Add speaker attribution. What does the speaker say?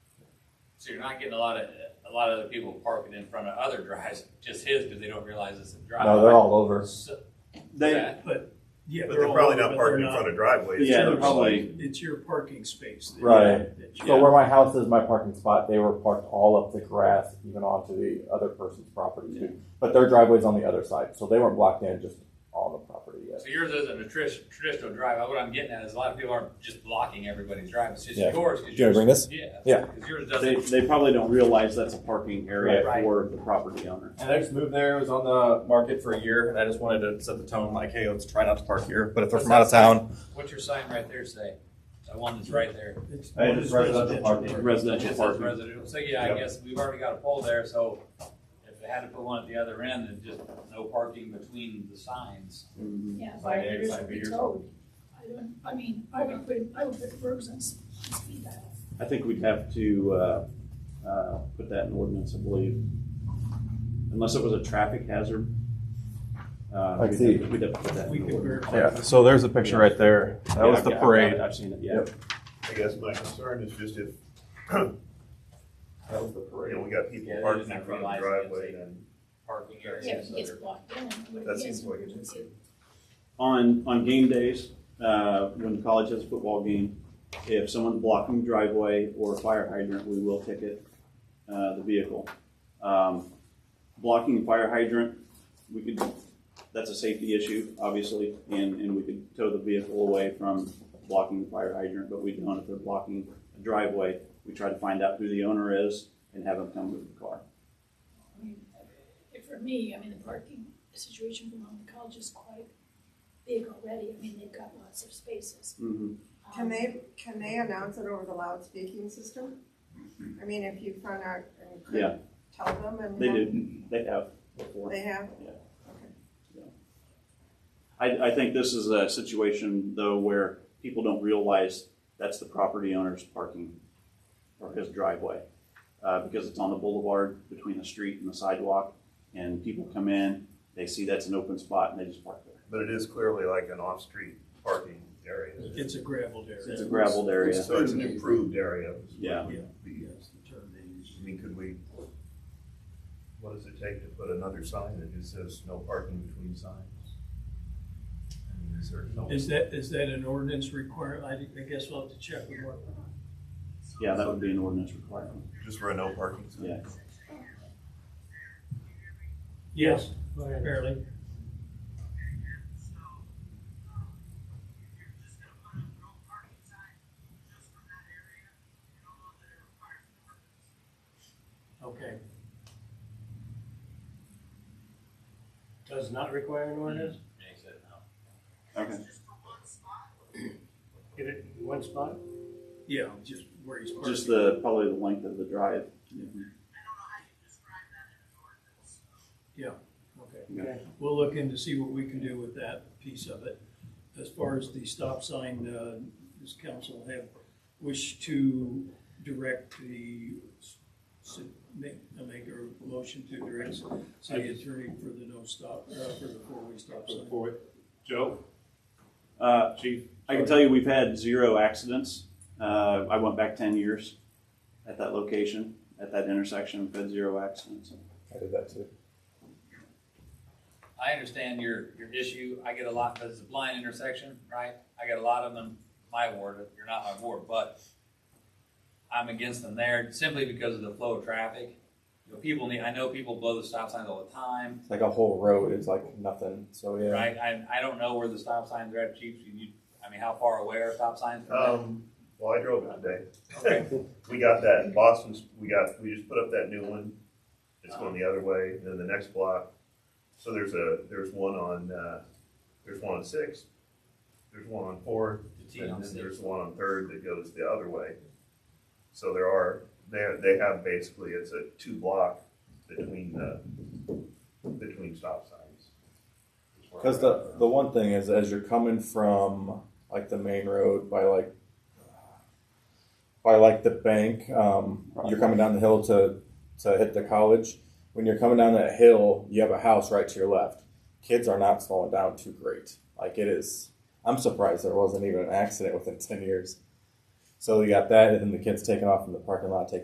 Speaker 1: So you're not getting a lot of, a lot of other people parking in front of other drives, just his, because they don't realize it's a drive.
Speaker 2: No, they're all over.
Speaker 1: So-
Speaker 3: They,
Speaker 1: That-
Speaker 4: But, yeah.
Speaker 5: But they're
Speaker 4: all
Speaker 5: probably
Speaker 4: over,
Speaker 5: not
Speaker 4: but
Speaker 5: parking in
Speaker 4: they're
Speaker 5: front of
Speaker 3: it's
Speaker 5: driveways.
Speaker 3: Yeah,
Speaker 4: your-
Speaker 3: they're probably-
Speaker 4: It's your parking space. that-
Speaker 2: Right.
Speaker 4: that you-
Speaker 2: So where my house is, my parking spot, they were parked all up the grass, even onto the other person's property too. But their driveway's on the other side, so they weren't blocked in, just on the property yet.
Speaker 1: So yours isn't a trish, traditional drive. What I'm getting at is a lot of people aren't just blocking everybody's drive. It's just
Speaker 2: Yeah.
Speaker 1: yours. 'cause
Speaker 2: Do you wanna
Speaker 1: yours-
Speaker 2: bring this?
Speaker 1: Yeah.
Speaker 2: Yeah.
Speaker 1: Because yours
Speaker 3: they,
Speaker 1: doesn't.
Speaker 3: they probably don't realize that's a parking area
Speaker 1: Right.
Speaker 3: for the property owner.
Speaker 6: And I just moved there. It was on the market for a year, and I just wanted to set the tone like, hey, let's try not to park here. But if they're from out of town,
Speaker 1: What's your sign right there say? The one that's right there.
Speaker 4: It's
Speaker 2: Hey,
Speaker 4: it's
Speaker 2: it's residential parking.
Speaker 1: It
Speaker 3: Residential
Speaker 1: just says
Speaker 3: parking.
Speaker 1: residential. So yeah, I
Speaker 6: Yep.
Speaker 1: guess we've already got a pole there, so if they had to put one at the other end and just no parking between the signs.
Speaker 3: Mhm.
Speaker 7: Yeah,
Speaker 1: Like
Speaker 7: five
Speaker 1: eggs,
Speaker 7: years
Speaker 1: like
Speaker 7: would be
Speaker 1: beers.
Speaker 7: towed. I don't, I mean, I would put, I would put verbs on s- on speed dial.
Speaker 3: I think we'd have to, uh, uh, put that in ordinance, I believe. Unless it was a traffic hazard. Uh,
Speaker 2: I
Speaker 3: we'd
Speaker 2: see.
Speaker 3: have- We'd have to put that
Speaker 4: We
Speaker 3: in
Speaker 4: could
Speaker 3: ordinance.
Speaker 4: verify.
Speaker 6: yeah. So there's a picture right there. That was
Speaker 3: Yeah,
Speaker 6: the
Speaker 3: I've got it.
Speaker 6: parade.
Speaker 3: I've seen it, yeah.
Speaker 2: Yep.
Speaker 5: I guess my concern is just if, you
Speaker 6: That was the parade.
Speaker 5: know, we got
Speaker 1: Yeah,
Speaker 5: people
Speaker 1: they
Speaker 5: parking
Speaker 1: didn't
Speaker 5: in front of the
Speaker 1: realize it.
Speaker 5: driveway and
Speaker 1: Parking
Speaker 7: Yeah, if
Speaker 1: areas.
Speaker 7: it gets blocked in. what
Speaker 5: that
Speaker 7: it
Speaker 5: seems
Speaker 7: is,
Speaker 5: like
Speaker 7: it's-
Speaker 5: it's.
Speaker 3: On, on game days, uh, when the college has a football game, if someone's blocking driveway or a fire hydrant, we will ticket, uh, the vehicle. Um, blocking fire hydrant, we could, that's a safety issue, obviously, and, and we could tow the vehicle away from blocking the fire hydrant, but we don't if they're blocking a driveway. We try to find out who the owner is and have them come move the car.
Speaker 7: I mean, if For me, I mean, the parking situation from home to college is quite big already. I mean, they've got lots of spaces. Um,
Speaker 8: Can they, can they announce it over the loudspeaking system? I mean, if you found out and
Speaker 3: Yeah.
Speaker 8: could tell them and.
Speaker 3: They
Speaker 8: have-
Speaker 3: do, they have before.
Speaker 8: They have?
Speaker 3: I, I think this is a situation though where people don't realize that's the property owner's parking or his driveway. Uh, because it's on the boulevard between the street and the sidewalk and people come in, they see that's an open spot and they just park there.
Speaker 5: But it is clearly like an off-street parking area.
Speaker 4: It's a gravelled area.
Speaker 3: It's a gravelled area.
Speaker 5: So it's an improved area.
Speaker 3: Yeah.
Speaker 4: Yeah,
Speaker 5: The-
Speaker 4: yes, the term they use.
Speaker 5: I mean, could we, what does it take to put another sign that just says no parking between signs? I mean, is there no?
Speaker 4: Is that, is that an ordinance requirement? I, I guess we'll have to check with what.
Speaker 3: Yeah, that would be an ordinance requirement.
Speaker 5: Just for a no parking sign?
Speaker 3: Yeah.
Speaker 4: Yes, apparently. Okay.
Speaker 9: Does not require an ordinance?
Speaker 1: Yeah, he said no.
Speaker 3: Okay.
Speaker 9: Get it in one spot?
Speaker 4: Yeah, just where he's parked.
Speaker 3: Just the, probably the length of the drive.
Speaker 4: Okay.
Speaker 3: Okay.
Speaker 4: We'll look in to see what we can do with that piece of it. As far as the stop sign, uh, this council have wished to direct the, s- make, uh, make a motion to direct city attorney for the no stop, uh, for the four-way stop sign.
Speaker 9: Joe?
Speaker 3: Uh,
Speaker 9: Chief?
Speaker 3: I can tell you we've had zero accidents. Uh, I went back 10 years at that location, at that intersection, we've had zero accidents.
Speaker 2: I did that too.
Speaker 1: I understand your, your issue. I get a lot, because it's a blind intersection, right? I get a lot of them in my ward. You're not my ward, but I'm against them there simply because of the flow of traffic. You know, people need, I know people blow the stop signs all the time.
Speaker 2: It's like a whole road is like nothing, so yeah.
Speaker 1: Right, I, I don't know where the stop signs are at, Chief, you, you- I mean, how far away are stop signs from
Speaker 5: Um, well, I drove it today.
Speaker 1: Okay.
Speaker 5: We got that Boston's, we got, we just put up that new one. It's going the other way, and then the next block. So there's a, there's one on, uh, there's one on Sixth. There's one on Fourth,
Speaker 1: the T on
Speaker 5: and then
Speaker 1: six?
Speaker 5: there's one on Third that goes the other way. So there are, they, they have basically, it's a two block between the, between stop signs.
Speaker 2: Because the the one thing is, as you're coming from like the main road by like by like the bank, um, you're coming down the hill to to hit the college. When you're coming down that hill, you have a house right to your left. Kids are not slowing down too great. Like it is, I'm surprised there wasn't even an accident within ten years. So you got that, and then the kids taking off from the parking lot, taking.